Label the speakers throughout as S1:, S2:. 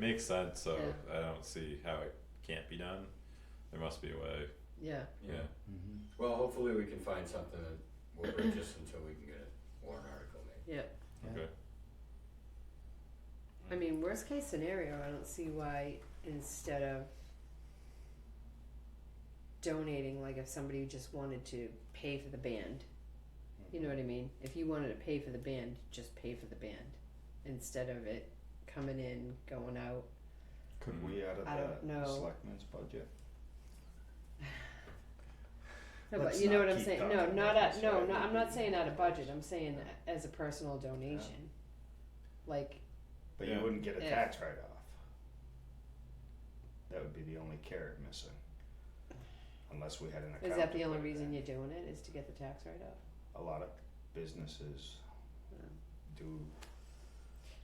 S1: makes sense, so I don't see how it can't be done. There must be a way,
S2: yeah,
S1: yeah.
S3: Mm-hmm.
S4: Well, hopefully we can find something that will bridge us until we can get a warrant article made.
S2: yeah.
S3: Yeah.
S1: Okay.
S2: I mean, worst case scenario, I don't see why instead of donating, like if somebody just wanted to pay for the band, you know what I mean? If you wanted to pay for the band, just pay for the band instead of it coming in, going out.
S3: Could
S1: Mm.
S3: we out of
S2: I don't
S3: the
S2: know.
S3: selectmen's budget?
S2: No, but
S3: Let's
S2: you know
S3: not
S2: what I'm
S3: keep
S2: saying.
S3: talking
S2: No,
S3: about
S2: not at
S3: this,
S2: no,
S3: right?
S2: no. I'm not
S3: We-
S2: saying out of budget. I'm saying as a personal donation, like
S3: But
S1: Yeah.
S3: you wouldn't get a
S2: Yeah.
S3: tax write off. That would be the only carrot missing. Unless we had an account.
S2: Is that the only reason you're doing it, is to get the tax write-off?
S3: A lot of businesses do,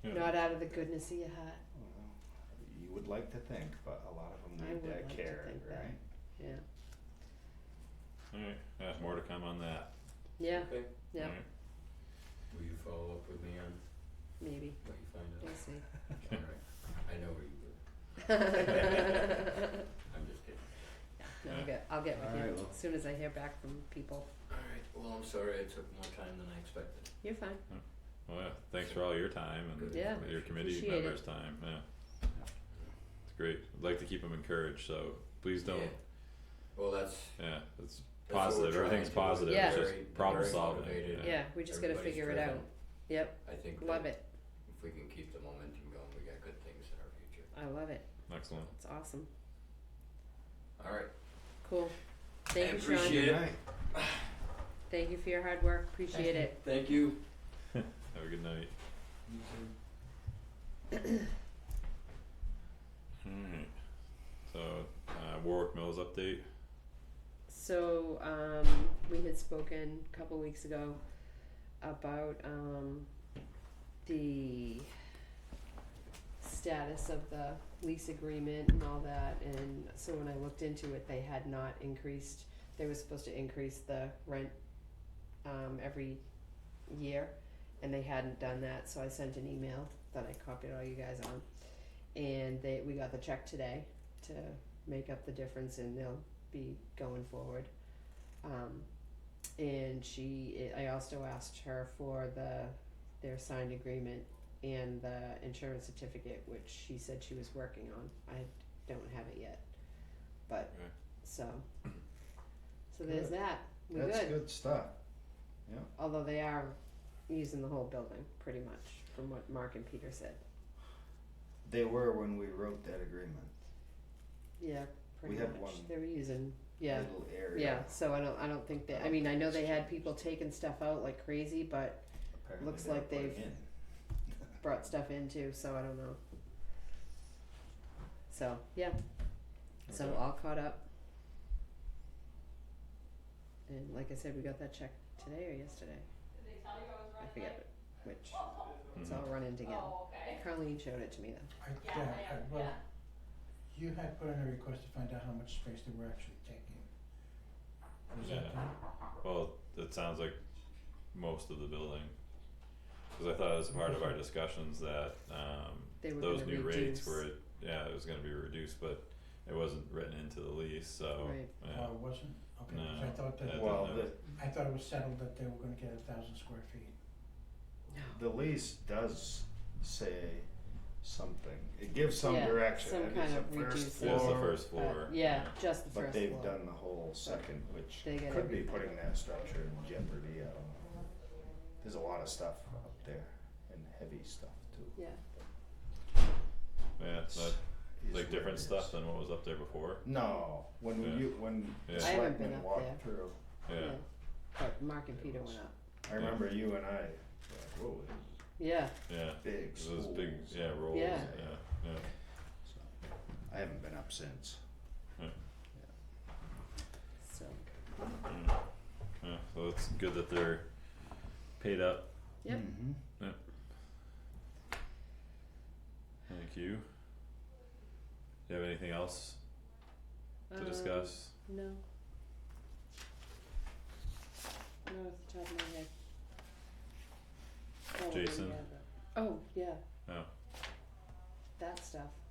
S1: Yeah.
S2: Not out of the goodness of your heart,
S3: well, uh, you would like to think, but a lot of them
S2: I
S3: need
S2: would
S3: that
S2: like to
S3: carrot,
S2: think that.
S3: right?
S2: yeah.
S1: Alright, yeah, more to come on that.
S2: Yeah,
S4: Okay,
S2: Yeah.
S1: Alright.
S4: will you follow up with me on
S2: maybe,
S4: what you find
S2: we'll
S4: out?
S2: see.
S4: Alright, I know where you live,
S2: No,
S4: I'm just kidding.
S2: I'll get, I'll get with
S3: Alright,
S2: you
S3: well.
S2: as soon as I hear back from people.
S4: Alright, well, I'm sorry I took more time than I expected.
S2: You're fine,
S1: Well, yeah, thanks for all your time and
S4: Good.
S2: Yeah,
S1: your committee
S2: appreciate it.
S1: members' time, yeah. It's great, I'd like to keep them encouraged, so please don't,
S4: Yeah. Well, that's,
S1: yeah, it's
S4: that's what we're
S1: Positive,
S4: trying
S1: everything's
S4: to do.
S1: positive,
S2: it's Yeah.
S1: just
S4: Very-
S1: problem
S4: very
S1: solving,
S4: motivated.
S1: Yeah.
S2: yeah, we just gotta
S4: Everybody's
S2: figure it
S4: driven.
S2: out, yep,
S4: I think
S2: love
S4: that
S2: it,
S4: if we can keep the momentum going, we got good things in our future.
S2: I love it,
S1: excellent.
S2: it's awesome,
S4: Alright,
S2: cool. Thank you, Sean,
S4: appreciate
S3: Good
S4: it.
S3: night.
S2: thank you for your hard work, appreciate it.
S4: thank you.
S1: Have a good night.
S4: You too.
S1: Alright, so, uh, Warwick Mills update,
S2: So um, we had spoken a couple weeks ago about um, the status of the lease agreement and all that, and so when I looked into it, they had not increased. They were supposed to increase the rent um, every year, and they hadn't done that. So I sent an email that I copied all you guys on, and they we got the check today to make up the difference, and they'll be going forward. Um, and she, I also asked her for the, their signed agreement and the insurance certificate, which she said she was working on. I don't have it yet, but,
S1: Okay.
S2: so. So there's
S3: Good.
S2: that, we
S3: That's good stuff.
S2: although they are using the whole building pretty much from what mark and peter said
S3: They were when we wrote that agreement.
S2: yeah pretty
S3: We had
S2: much
S3: one.
S2: they were using yeah
S3: Little
S2: yeah
S3: area.
S2: so i don't i don't think they i mean i know they had people taking stuff out like crazy but
S3: Apparently
S2: Looks
S3: they were
S2: like they've-
S3: putting in.
S2: brought stuff in too so i don't know so yeah so
S1: Okay.
S2: all caught up and like i said we got that check today or yesterday i forget which it's
S1: Mm-hmm.
S2: all running together carlene showed it to me though
S5: I, yeah, I, well, you had put in a request to find out how much space they were actually taking. Was that
S1: Yeah.
S5: done?
S1: well, it sounds like most of the building. Cause I thought as part of our discussions that, um,
S2: they were
S1: those
S2: gonna
S1: new rates
S2: reduce.
S1: were, yeah, it was gonna be reduced, but it wasn't written into the lease, so,
S2: Right.
S1: yeah,
S5: Oh, it wasn't? Okay, 'cause
S1: No,
S5: I thought
S1: I
S5: that,
S1: don't
S3: Well,
S1: know.
S3: the,
S5: I thought it was settled that they were gonna get a thousand square feet.
S3: the lease does say something. It gives some
S2: Yeah,
S3: direction.
S2: some
S3: It is
S2: kind
S3: a
S2: of
S3: first
S2: reduced-
S1: it was the
S3: floor,
S1: first floor.
S2: Uh, yeah, just the
S3: But
S2: first
S3: they've
S2: floor.
S3: done the whole second, which
S2: They get
S3: could be
S2: everything.
S3: putting that structure in jeopardy. I don't know. There's a lot of stuff up there and heavy stuff too.
S2: Yeah,
S1: Yeah, it's not,
S3: Is
S1: like
S3: what
S1: different
S3: it
S1: stuff
S3: is.
S1: than what was up there before,
S3: No, when
S1: Yeah.
S3: you when
S1: Yeah.
S3: the
S1: I
S2: haven't been
S3: selectmen
S2: up there.
S3: walked through,
S1: yeah,
S2: yeah. But Mark and Peter went up.
S3: I remember you and I. Like, Whoa,
S2: Yeah,
S1: yeah,
S3: this is big.
S1: It was big,
S3: schools."
S1: yeah, rolls, yeah,
S2: Yeah.
S1: yeah,
S3: So, I haven't been up since.
S2: so,
S1: Mm. yeah, so it's good that they're paid up,
S2: Yep.
S3: Mm-hmm.
S1: thank you. Do you have anything else to
S2: um,
S1: discuss?
S2: No. No, off the top of my head. Probably
S1: Jason?
S2: yeah, but- Oh, yeah.
S1: Oh.
S2: That stuff,